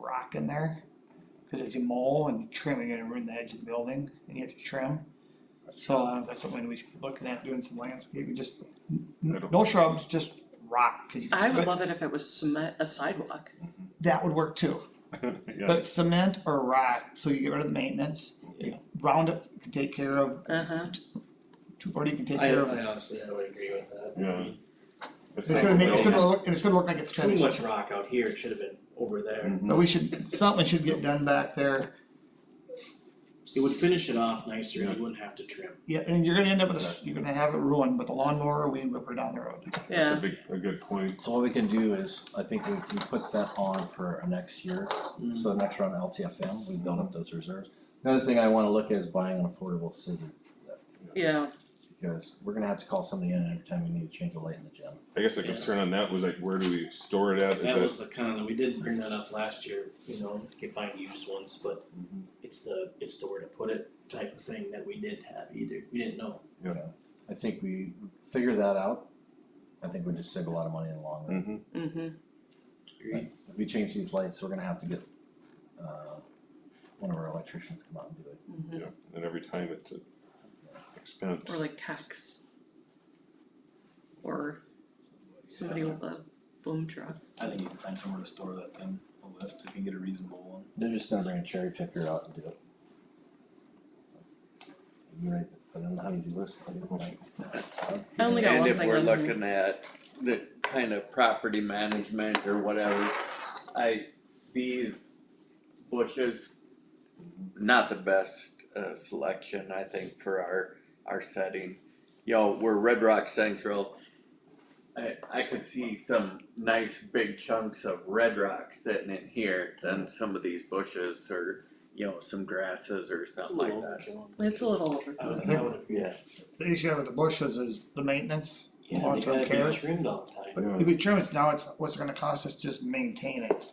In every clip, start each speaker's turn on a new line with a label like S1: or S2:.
S1: rock in there. Cause as you mow and trim, you're gonna ruin the edge of the building and you have to trim. So uh, that's something we should be looking at, doing some landscaping, just n-
S2: It'll-
S1: no shrubs, just rock, cause you.
S3: I would love it if it was cement, a sidewalk.
S1: That would work too.
S2: Yeah,
S1: But cement or rock, so you get rid of the maintenance, you- Roundup can take care of,
S3: Uh-huh.
S1: two forty can take
S4: I
S1: care of.
S4: I honestly, I would agree with that.
S2: yeah. It's
S1: It's gonna make, it's gonna look, and it's gonna look like it's
S4: Too
S1: finished,
S4: much rock out here, it should have been over
S2: Mm.
S4: there.
S1: but we should, something should get done back there.
S4: It would finish it off nicer, you wouldn't have to trim.
S1: Yeah, and you're gonna end up with, a s- you're gonna have it ruined, but the lawnmower, we whip her down the road.
S2: That's
S3: Yeah,
S2: a big, a good point.
S5: So what we can do is, I think we can put that on for our next year, so next round of LTFM, we build up those reserves. Another thing I wanna look at is buying an affordable scissor,
S3: yeah,
S5: because we're gonna have to call somebody in every time we need to change a light in the gym.
S2: I guess the
S4: Yeah.
S2: concern on that was like, where do we store it at? Is
S4: That was the kind of, we did bring that up last year, you know, you could find used ones, but
S5: Mhm.
S4: it's the, it's the where to put it type of thing that we didn't have either, we didn't know.
S5: I think we figure that out, I think we just save a lot of money in the long run.
S2: Mhm.
S3: mm-hmm,
S4: Agreed.
S5: If we change these lights, we're gonna have to get, uh, one of our electricians to come out and do it.
S3: mm-hmm.
S2: Yeah, and every time it's an expense.
S3: Or like tax. Or somebody with a boom truck.
S6: I think you can find somewhere to store that thing, a lift, if you can get a reasonable one.
S5: They're just gonna bring a cherry picker out and do it. You're right, but I don't know how you do this, I don't know.
S3: I only got
S7: And
S3: one
S7: if
S3: thing
S7: we're
S3: on here.
S7: looking at the kind of property management or whatever, I, these bushes, not the best uh selection, I think, for our, our setting. You know, we're Red Rock Central. I, I could see some nice big chunks of red rock sitting in here than some of these bushes or, you know, some grasses or
S4: It's a
S7: something like
S4: little
S7: that.
S4: overkill.
S3: It's a little over.
S4: I would, I would agree.
S7: Yeah.
S1: The issue I have with the bushes is the maintenance,
S4: Yeah, they
S1: Long-term
S4: gotta
S1: care.
S4: be trimmed all the time.
S1: but if we trim it now, it's, what's it gonna cost us to just maintain it?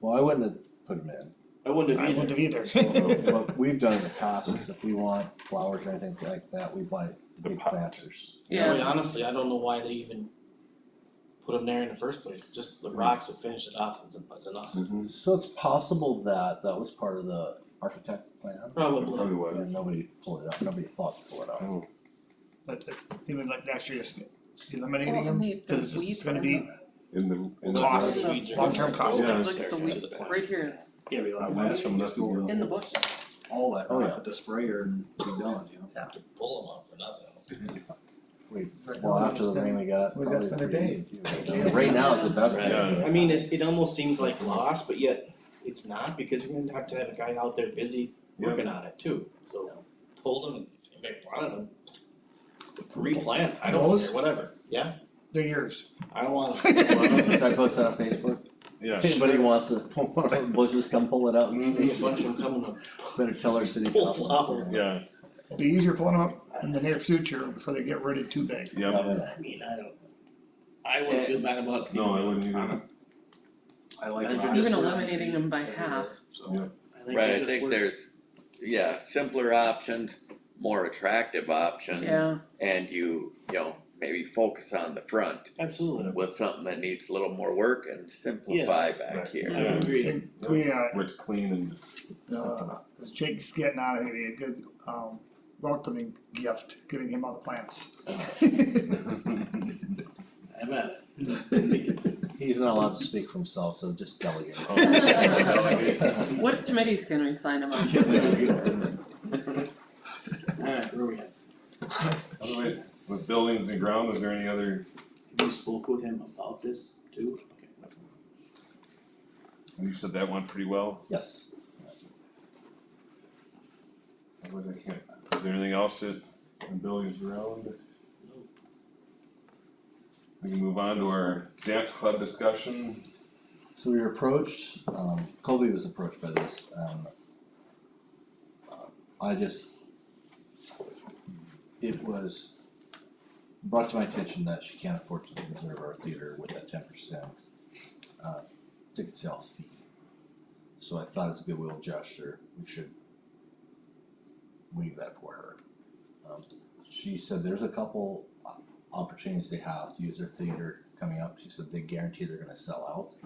S5: Well, I wouldn't have put them in,
S4: I wouldn't
S1: I
S4: have
S1: wouldn't
S4: either,
S1: have either.
S5: so what we've done in the past is if we want flowers or anything like that, we buy
S2: The
S5: the big
S2: pot.
S5: planters.
S4: I
S3: Yeah,
S4: mean, honestly, I don't know why they even put them there in the first place, just the rocks that finish it off is is enough.
S2: Mhm.
S5: So it's possible that that was part of the architect plan,
S4: Probably,
S2: Probably was.
S5: and nobody pulled it up, nobody thought to pull it up.
S2: Oh,
S1: But if, even like next year, just eliminating
S3: well, and
S1: them,
S3: they,
S1: cause it's
S3: there's
S1: just, it's
S3: weeds
S1: gonna
S3: in
S1: be
S3: them.
S2: in the, in the.
S1: Cost.
S4: the weeds are.
S1: Long-term cost.
S2: Yeah.
S3: Look at the weeds, right here,
S6: Yeah, we
S2: I went from nothing.
S3: in the bush.
S6: All that,
S5: Oh,
S6: rock
S5: yeah.
S6: with the sprayer and be done, you know?
S4: Pull them off for nothing.
S1: right
S5: Well,
S1: now,
S5: after the
S1: it's
S5: rain we got,
S1: Somebody's gotta
S5: probably
S1: spend a
S5: pretty
S1: day.
S5: easy too. Right now is the best
S4: Right.
S5: time.
S4: I mean, it, it almost seems like loss, but yet it's not because you're gonna have to have a guy out there busy
S2: Yeah.
S4: working on it too, so pull them, and make one of them. Replant, I don't
S1: Those?
S4: care, whatever, yeah,
S1: been- They're yours.
S4: I don't want
S5: Should I
S4: to.
S5: post that on Facebook?
S2: Yeah.
S5: If anybody wants to, one of the bushes, come pull it up.
S4: See a bunch of them coming up.
S5: Better tell our city
S4: Pull
S5: council.
S4: flowers.
S2: Yeah,
S1: It'll be easier pulling them up in the near future before they get rooted too big.
S2: yeah,
S5: Yeah.
S4: I mean, I don't. I wouldn't feel bad about seeing.
S2: no, I
S4: them,
S2: wouldn't either,
S4: honest.
S6: I like.
S4: And they're
S6: rock.
S4: just
S3: Even eliminating them by half.
S6: So.
S4: I think
S7: Right,
S4: they
S7: I
S4: just
S7: think
S4: work-
S7: there's, yeah, simpler options, more attractive options.
S3: Yeah,
S7: And you, you know, maybe focus on the front
S4: Absolutely,
S7: with something that needs a little more work and simplify
S4: Yes.
S7: back
S2: Right.
S7: here.
S4: I would agree.
S1: Think We, uh,
S2: where it's clean and something.
S1: uh, as Jake's getting out, it'd be a good, um, welcoming gift, giving him all the plants.
S4: I'm at it.
S5: He's not allowed to speak for himself, so just delegate.
S3: Oh. what committees can we sign them up?
S4: Alright, where we at?
S2: Otherwise, with buildings and ground, is there any other,
S4: You spoke with him about this too? Okay.
S2: you said that one pretty well,
S5: Yes.
S2: otherwise I can't, is there anything else that, in buildings and ground? We can move on to our dance club discussion.
S5: So we were approached, um, Colby was approached by this, um. uh, I just. It was brought to my attention that she can't afford to reserve our theater with that ten percent. Uh, ticket sales fee. So I thought as a goodwill gesture, we should. Waive that for her. Um, she said there's a uh, couple o- opportunities they have to use their theater coming up, she said they guarantee they're gonna sell out.